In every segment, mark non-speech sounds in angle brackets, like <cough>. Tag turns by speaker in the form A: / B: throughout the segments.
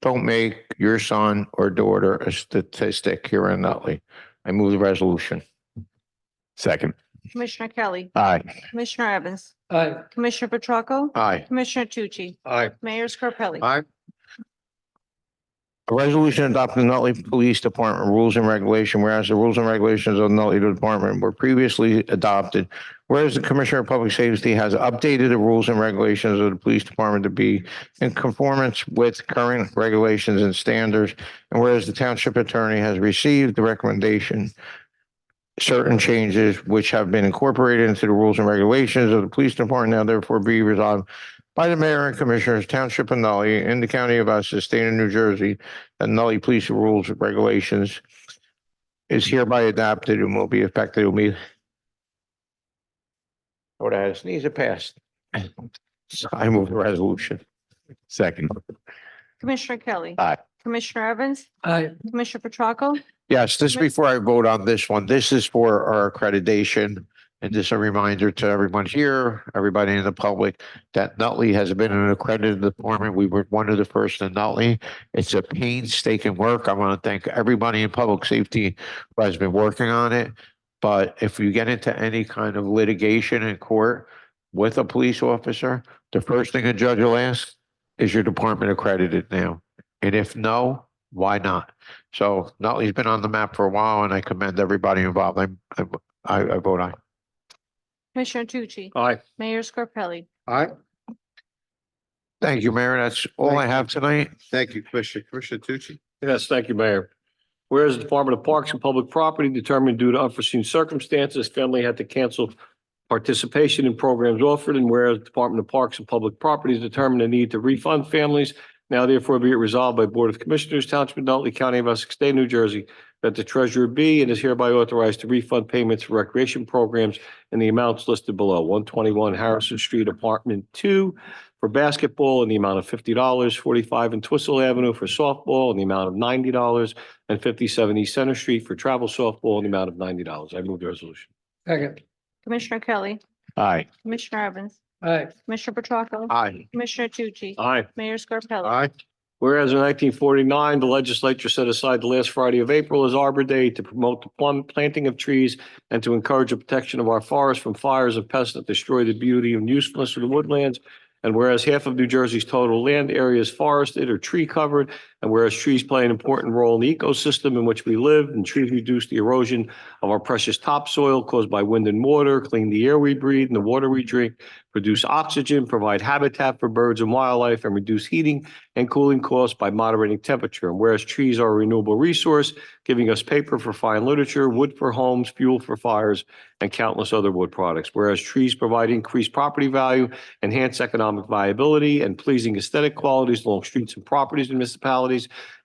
A: don't make your son or daughter a statistic here in Nutley. I move the resolution.
B: Second.
C: Commissioner Kelly,
B: Aye.
C: Commissioner Evans,
D: Aye.
C: Commissioner Petracca,
A: Aye.
C: Commissioner Tucci,
D: Aye.
C: Mayor Scarpelli.
A: Aye. A resolution adopting Nutley Police Department rules and regulation, whereas the rules and regulations of Nutley Department were previously adopted. Whereas the Commissioner of Public Safety has updated the rules and regulations of the Police Department to be in conformance with current regulations and standards. And whereas the Township Attorney has received the recommendation certain changes which have been incorporated into the rules and regulations of the Police Department now therefore be resolved by the mayor and commissioners, township of Nutley, in the county of Essex, state of New Jersey, and Nutley Police Rules and Regulations is hereby adopted and will be effective immediately. Lord, I sneeze it passed. So <clears throat> I move the resolution.
B: Second.
C: Commissioner Kelly.
B: Aye.
C: Commissioner Evans,
D: Aye.
C: Commissioner Petracca,
A: Yes, this before I vote on this one, this is for our accreditation. And just a reminder to everyone here, everybody in the public, that Nutley has been an accredited department. We were one of the first in Nutley. It's a painstaking work. I want to thank everybody in public safety who has been working on it. But if you get into any kind of litigation in court with a police officer, the first thing a judge will ask, is your department accredited now? And if no, why not? So Nutley's been on the map for a while and I commend everybody involved. I, I, I I vote aye.
C: Commissioner Tucci,
D: Aye.
C: Mayor Scarpelli.
D: Aye.
A: Thank you, Mayor. That's all I have tonight.
E: Thank you, Commissioner. Commissioner Tucci?
D: Yes, thank you, Mayor. Whereas the Department of Parks and Public Property determined due to unforeseen circumstances, family had to cancel participation in programs offered, and whereas the Department of Parks and Public Property determined a need to refund families, now therefore be it resolved by Board of Commissioners, Township of Nutley County of Essex State, New Jersey, that the treasurer be and is hereby authorized to refund payments for recreation programs in the amounts listed below, one twenty-one Harrison Street, Apartment Two, for basketball in the amount of fifty dollars, forty-five and Twistle Avenue for softball in the amount of ninety dollars, and fifty-seven East Center Street for travel softball in the amount of ninety dollars. I move the resolution.
F: Second,
C: Commissioner Kelly,
B: Aye.
C: Commissioner Evans,
F: aye,
C: Commissioner Petracca,
A: Aye.
C: Commissioner Tucci,
D: Aye.
C: Mayor Scarpelli.
E: Aye.
D: Whereas in nineteen forty-nine, the legislature set aside the last Friday of April as Arbor Day to promote the plum planting of trees and to encourage the protection of our forests from fires and pests that destroy the beauty and usefulness of the woodlands. And whereas half of New Jersey's total land area is forested or tree covered, and whereas trees play an important role in the ecosystem in which we live, and trees reduce the erosion of our precious topsoil caused by wind and water, clean the air we breathe and the water we drink, produce oxygen, provide habitat for birds and wildlife, and reduce heating and cooling costs by moderating temperature. And whereas trees are a renewable resource, giving us paper for fine literature, wood for homes, fuel for fires, and countless other wood products. Whereas trees provide increased property value, enhance economic viability, and pleasing aesthetic qualities along streets and properties in municipalities.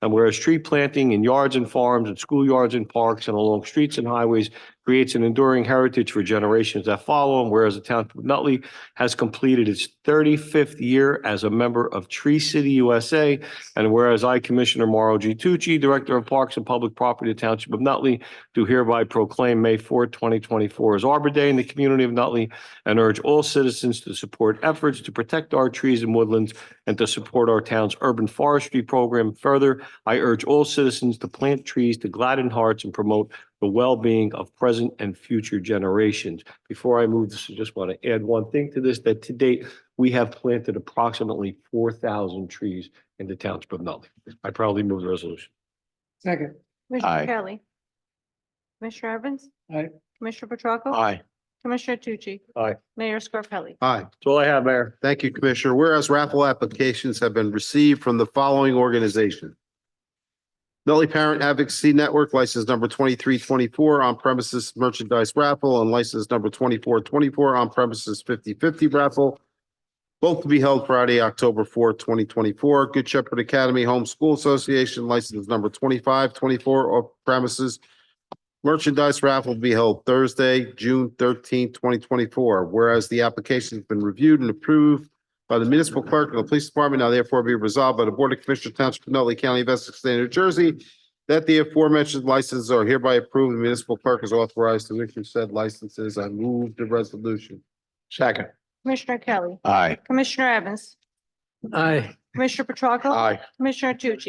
D: And whereas tree planting in yards and farms and schoolyards and parks and along streets and highways creates an enduring heritage for generations that follow. And whereas the township of Nutley has completed its thirty-fifth year as a member of Tree City USA. And whereas I, Commissioner Mauro G. Tucci, Director of Parks and Public Property, Township of Nutley, do hereby proclaim May 4, twenty twenty-four as Arbor Day in the community of Nutley and urge all citizens to support efforts to protect our trees and woodlands and to support our town's urban forestry program. Further, I urge all citizens to plant trees to gladden hearts and promote the well-being of present and future generations. Before I move this, I just want to add one thing to this, that to date, we have planted approximately four thousand trees in the township of Nutley. I proudly move the resolution.
F: second,
C: Commissioner
B: Aye.
C: Kelly. Commissioner Evans.
F: Aye.
C: Commissioner Petracca.
A: Aye.
C: Commissioner Tucci.
D: Aye.
C: Mayor Scarpelli.
E: Aye.
D: That's all I have, Mayor.
E: Thank you, Commissioner. Whereas raffle applications have been received from the following organization. Nutley Parent Advocacy Network, license number twenty-three twenty-four on premises merchandise raffle and license number twenty-four twenty-four on premises fifty-fifty raffle. Both to be held Friday, October fourth, twenty twenty-four. Good Shepherd Academy Home School Association, license number twenty-five twenty-four on premises Merchandise raffle will be held Thursday, June thirteenth, twenty twenty-four, whereas the application has been reviewed and approved by the municipal clerk and the police department, now therefore be resolved by the Board of Commissioners Township of Nutley County of Essex State of New Jersey that the aforementioned licenses are hereby approved, the municipal clerk is authorized to issue said licenses. I move the resolution.
A: Second.
C: Commissioner Kelly,
B: Aye.
C: Commissioner Evans,
F: aye.
C: Commissioner Petracca.
A: Aye.
C: Commissioner Tucci.